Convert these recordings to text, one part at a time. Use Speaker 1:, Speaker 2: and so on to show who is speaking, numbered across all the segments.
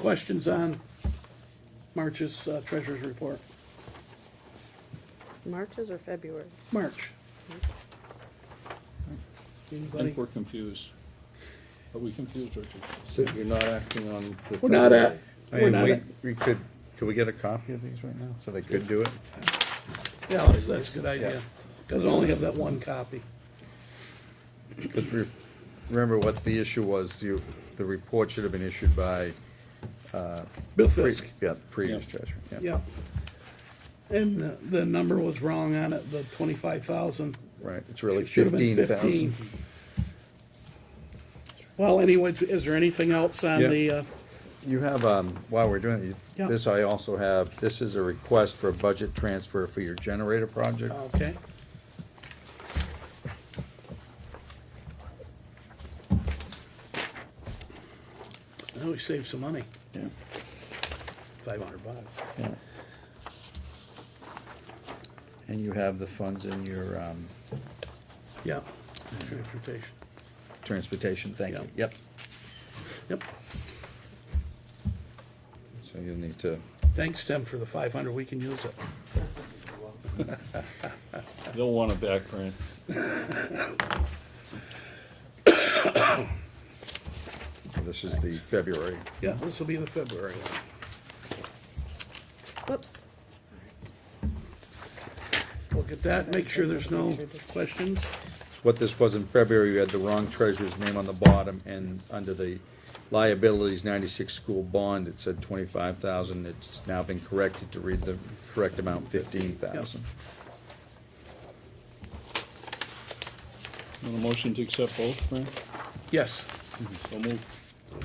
Speaker 1: Questions on March's uh, treasurer's report?
Speaker 2: Marches or February?
Speaker 1: March.
Speaker 3: I think
Speaker 1: Anybody?
Speaker 3: we're confused. Are we confused, Richard?
Speaker 4: So you're not acting on the.
Speaker 1: We're not at,
Speaker 4: February?
Speaker 5: I
Speaker 1: we're
Speaker 5: mean,
Speaker 1: not
Speaker 5: we,
Speaker 1: at,
Speaker 5: we could, could we get a copy of these right now, so they could do it?
Speaker 1: yeah, that's, that's a good idea, because I only have that one copy.
Speaker 5: Because re- remember what the issue was, you, the report should have been issued by.
Speaker 1: Bill
Speaker 5: pre-
Speaker 1: Fisk,
Speaker 5: Yeah, previous
Speaker 3: Yeah.
Speaker 5: treasurer, yeah,
Speaker 1: yeah. And the- the number was wrong on it, the twenty-five thousand.
Speaker 5: right, it's really fifteen thousand.
Speaker 1: Well, anyway, is there anything else on
Speaker 5: Yeah.
Speaker 1: the, uh,
Speaker 5: You have, um, while we're doing, it, you-
Speaker 1: Yeah.
Speaker 5: this I also have, this is a request for a budget transfer for your generator project.
Speaker 1: okay? Now we saved some money,
Speaker 5: Yeah.
Speaker 1: five hundred bucks.
Speaker 5: Yeah. And you have the funds in your, um,
Speaker 1: Yeah, transportation,
Speaker 5: transportation, thank you, yep.
Speaker 1: yep.
Speaker 5: So you'll need to,
Speaker 1: Thanks, Tim, for the five hundred, we can use it.
Speaker 3: They'll want a back print.
Speaker 5: this is the February
Speaker 1: Yeah, this will be the February one.
Speaker 2: Whoops.
Speaker 1: Look at that, make sure there's no questions.
Speaker 5: what this was in February, you had the wrong treasurer's name on the bottom, and under the liabilities ninety-six school bond, it said twenty-five thousand, it's now been corrected to read the correct amount, fifteen thousand.
Speaker 3: Want a motion to accept both, Fran?
Speaker 1: Yes.
Speaker 3: So move.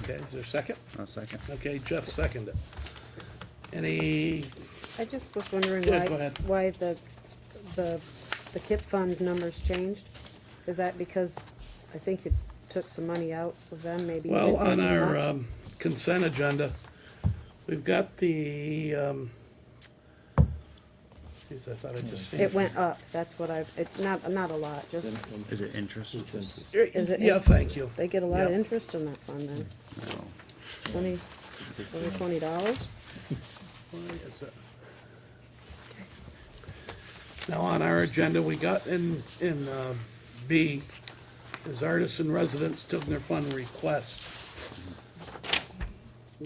Speaker 1: Okay, is there a second?
Speaker 5: A second.
Speaker 1: Okay, Jeff seconded. Any,
Speaker 2: I just was wondering
Speaker 1: Yeah,
Speaker 2: why,
Speaker 1: go ahead.
Speaker 2: why the, the, the KIP fund numbers changed? Is that because I think you took some money out of them, maybe? you
Speaker 1: well,
Speaker 2: didn't take
Speaker 1: on
Speaker 2: them
Speaker 1: our
Speaker 2: out?
Speaker 1: um, consent agenda, we've got the, um, geez, I thought I just seen.
Speaker 2: It went up, that's what I've, it's not, not a lot, just,
Speaker 5: Is it interest?
Speaker 2: Is it-
Speaker 1: Yeah, thank you.
Speaker 2: they get a lot of
Speaker 1: Yeah.
Speaker 2: interest in that fund then. Twenty, over twenty dollars?
Speaker 1: Why is it- Now, on our agenda, we got in, in uh, B, is artisan residents Tigner Fund request.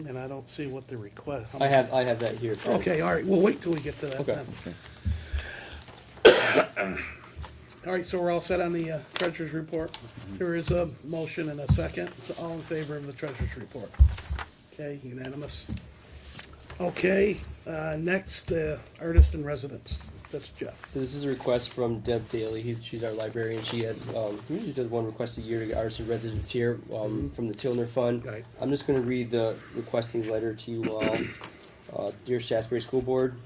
Speaker 1: And I don't see what the request.
Speaker 6: I have, I have that here. too.
Speaker 1: Okay, all right, we'll wait till we get to that
Speaker 6: Okay.
Speaker 1: then. All right, so we're all set on the uh, treasurer's report. There is a motion and a second, So all in favor of the treasurer's report. Okay, unanimous. Okay, uh, next, uh, artist in residence, that's Jeff.
Speaker 6: So this is a request from Deb Daly. He's, she's our librarian. She has, um, usually does one request a year to get artists and residents here, um, from the Tilner Fund.
Speaker 1: Mm-hmm. Right.
Speaker 6: I'm just gonna read the requesting letter to you all. Uh, Dear Shasberry School Board,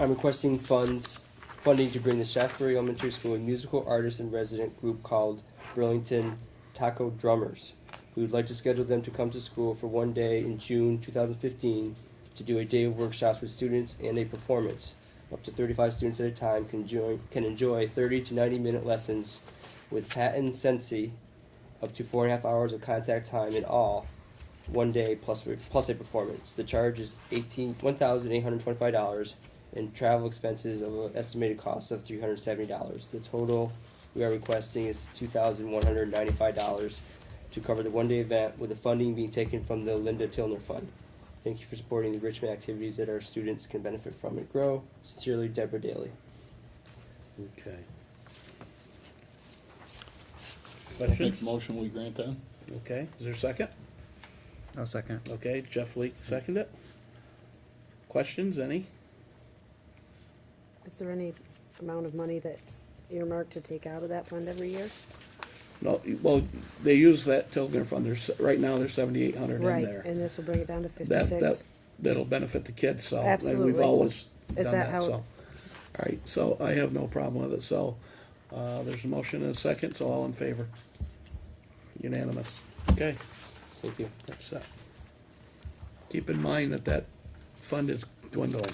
Speaker 6: I'm requesting funds, funding to bring the Shasberry Elementary School a musical artist and resident group called Burlington Taco Drummers. We would like to schedule them to come to school for one day in June two thousand fifteen to do a day of workshops with students and a performance. Up to thirty-five students at a time can join, can enjoy thirty to ninety-minute lessons with Pat and Sensi, up to four and a half hours of contact time in all, one day plus plus a performance. The charge is eighteen one thousand eight hundred twenty five dollars, and travel expenses of an estimated cost of three hundred seventy dollars. The total we are requesting is two thousand one hundred ninety five dollars to cover the one day event, with the funding being taken from the Linda Tilner Fund. Thank you for supporting the Richmond activities that our students can benefit from and grow. Sincerely, Deborah Daly.
Speaker 1: Okay.
Speaker 3: I'll Make
Speaker 1: Questions?
Speaker 3: a motion, we grant that?
Speaker 1: Okay, is there a second?
Speaker 5: A second.
Speaker 1: Okay, Jeff Leake, second it. Questions, any?
Speaker 2: Is there any amount of money that's earmarked to take out of that fund every year?
Speaker 1: No, well, they use that Tigner Fund, there's, right now, there's seventy-eight hundred in
Speaker 2: Right,
Speaker 1: there.
Speaker 2: and this will bring it down to
Speaker 1: That, that,
Speaker 2: fifty-six.
Speaker 1: that'll benefit the kids, so, and we've
Speaker 2: Absolutely.
Speaker 1: always done
Speaker 2: Is that
Speaker 1: that,
Speaker 2: how,
Speaker 1: so.
Speaker 2: it-
Speaker 1: All right, so I have no problem with it, so, uh, there's a motion and a second, so all in favor? Unanimous, okay,
Speaker 6: Thank you.
Speaker 1: that's that. Keep in mind that that fund is dwindling.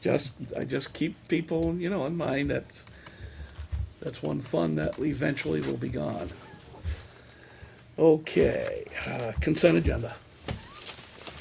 Speaker 1: Just, I just keep people, you know, in mind that, that's one fund that eventually will be gone. Okay, uh, consent agenda.